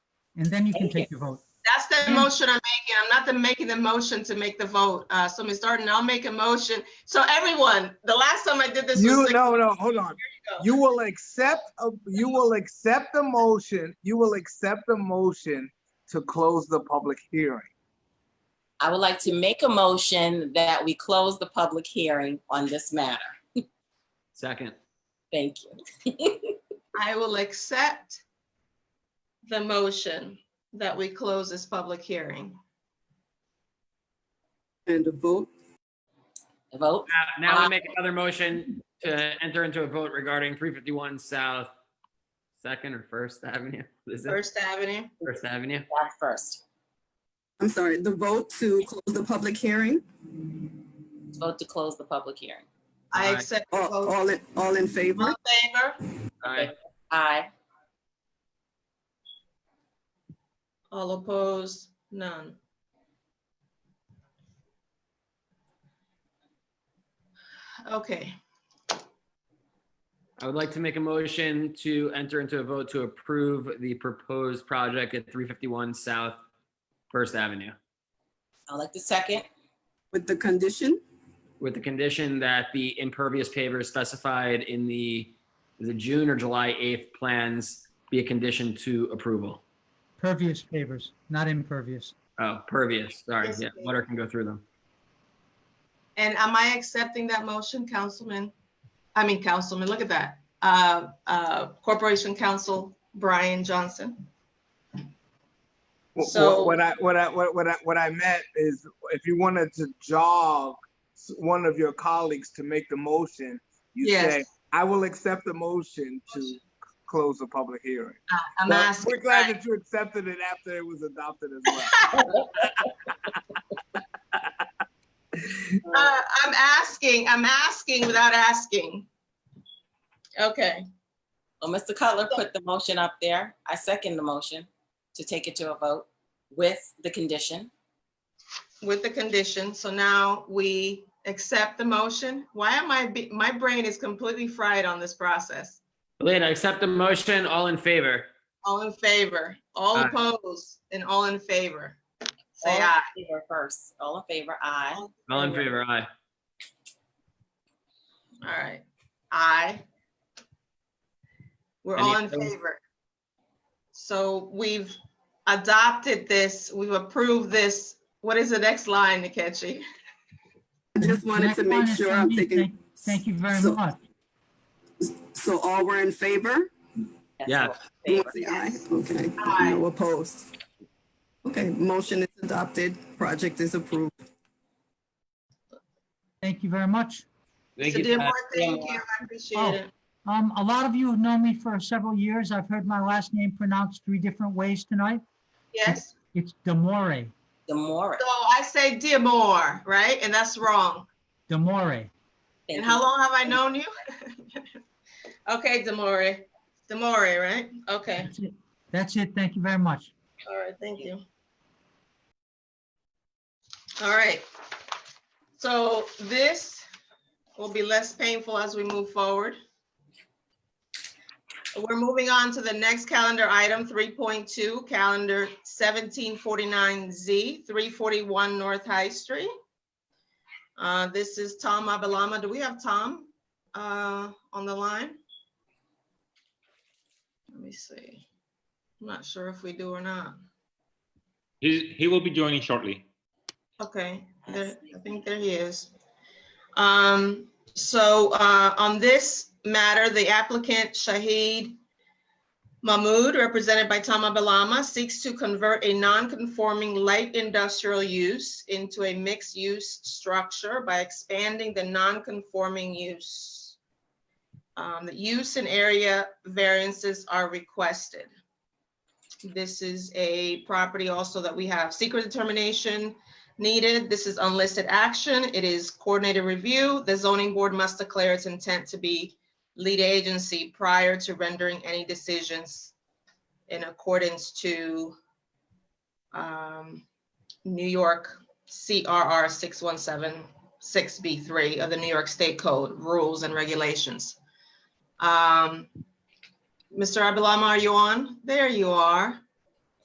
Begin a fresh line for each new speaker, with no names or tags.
and then you can take your vote.
That's the
Yeah.
motion I'm making. I'm not the making the motion to make the vote. Uh, so Ms. Darden, I'll make a motion. So everyone, the last time I did this was
You,
six.
no, no, hold on.
go.
You will accept, a- you will accept the motion, you will accept the motion to close the public hearing.
I would like to make a motion that we close the public hearing on this matter.
Second.
Thank you.
I will accept the motion that we close this public hearing.
And the vote,
The Vote?
Now- Uh,
Uh,
Now we make another motion to enter into a vote regarding 351 South Second or First Avenue. Is it
First Avenue.
First Avenue?
Back first.
I'm sorry, the vote to close the public hearing?
Vote to close the public hearing.
I
Aye.
accept the
All, Oh,
vote.
all in- all in
All
favor?
in favor?
Aye.
Aye.
All opposed? None. Okay,
I would like to make a motion to enter into a vote to approve the proposed project at 351 South First Avenue
I'd like to second.
With the condition?
with the condition that the impervious pavers specified in the, the June or July 8th plans be a condition to approval.
Pervious favors, not impervious.
Oh, pervious, sorry.
Yes,
Yeah,
please.
water can go through them.
and am I accepting that motion, Councilman? I mean, Councilman, look at that. Uh, uh, Corporation Counsel Brian Johnson.
Wh- wh-
So-
What I, what I, what what I, what I meant is if you wanted to jog s- one of your colleagues to make the motion, you
Yes.
say, I will accept the motion to c- close the public hearing.
I'm
Well,
asking.
We're glad that you accepted it after it was adopted as well.
Uh, I'm asking, I'm asking without asking. Okay,
Well, Mr. Cutler put the motion up there. I second the motion to take it to a vote with the condition.
with the condition, so now we accept the motion. Why am I, be- my brain is completely fried on this process.
Elena, accept the motion. All in favor?
All in favor, all
Aye.
opposed, and all in favor. Say
All in
aye.
favor First, all in favor, aye.
All in favor, aye.
All right, aye. We're all in
Any opposed?
favor. So we've adopted this, we've approved this. What is the next line, Nkechi?
I just wanted to
Next
make
one is
sure I'm
Sandeep.
taking,
Thank- Thank you very
So-
much.
so all were in favor?
That's
Yeah.
all in
Everyone
favor.
say Aye, okay.
Aye.
No opposed. Okay, motion is adopted, project is approved.
Thank you very much.
Thank
So
you.
dear
Pat.
Mark, thank you, I appreciate
Oh.
it.
Um, a lot of you have known me for several years. I've heard my last name pronounced three different ways tonight.
Yes,
It's Demore,
Demore.
so I say dear Moore, right? And that's wrong.
Demore.
Thank
And
you.
how long have I known you? Okay, Demore, Demore, right? Okay,
That's it. That's it. Thank you very much.
all right, thank you. All right. So this will be less painful as we move forward. We're moving on to the next calendar item, 3.2, calendar 1749Z, 341 North High Street. Uh, This is Tom Abalama. Do we have Tom uh, on the line? Let me see. I'm not sure if we do or not.
He, he will be joining shortly.
Okay, there, I think there he is. Um, so, uh, on this matter, the applicant Shahid Mahmood, represented by Tama Balama, seeks to convert a non-conforming light industrial use into a mixed-use structure by expanding the non-conforming use. Um, the use and area variances are requested. This is a property also that we have secret determination needed. This is unlisted action. It is coordinated review. The zoning board must declare its intent to be lead agency prior to rendering any decisions in accordance to um, New York CRR 6176B3 of the New York State Code Rules and Regulations. Um, Mr. Abulama, are you on? There you are.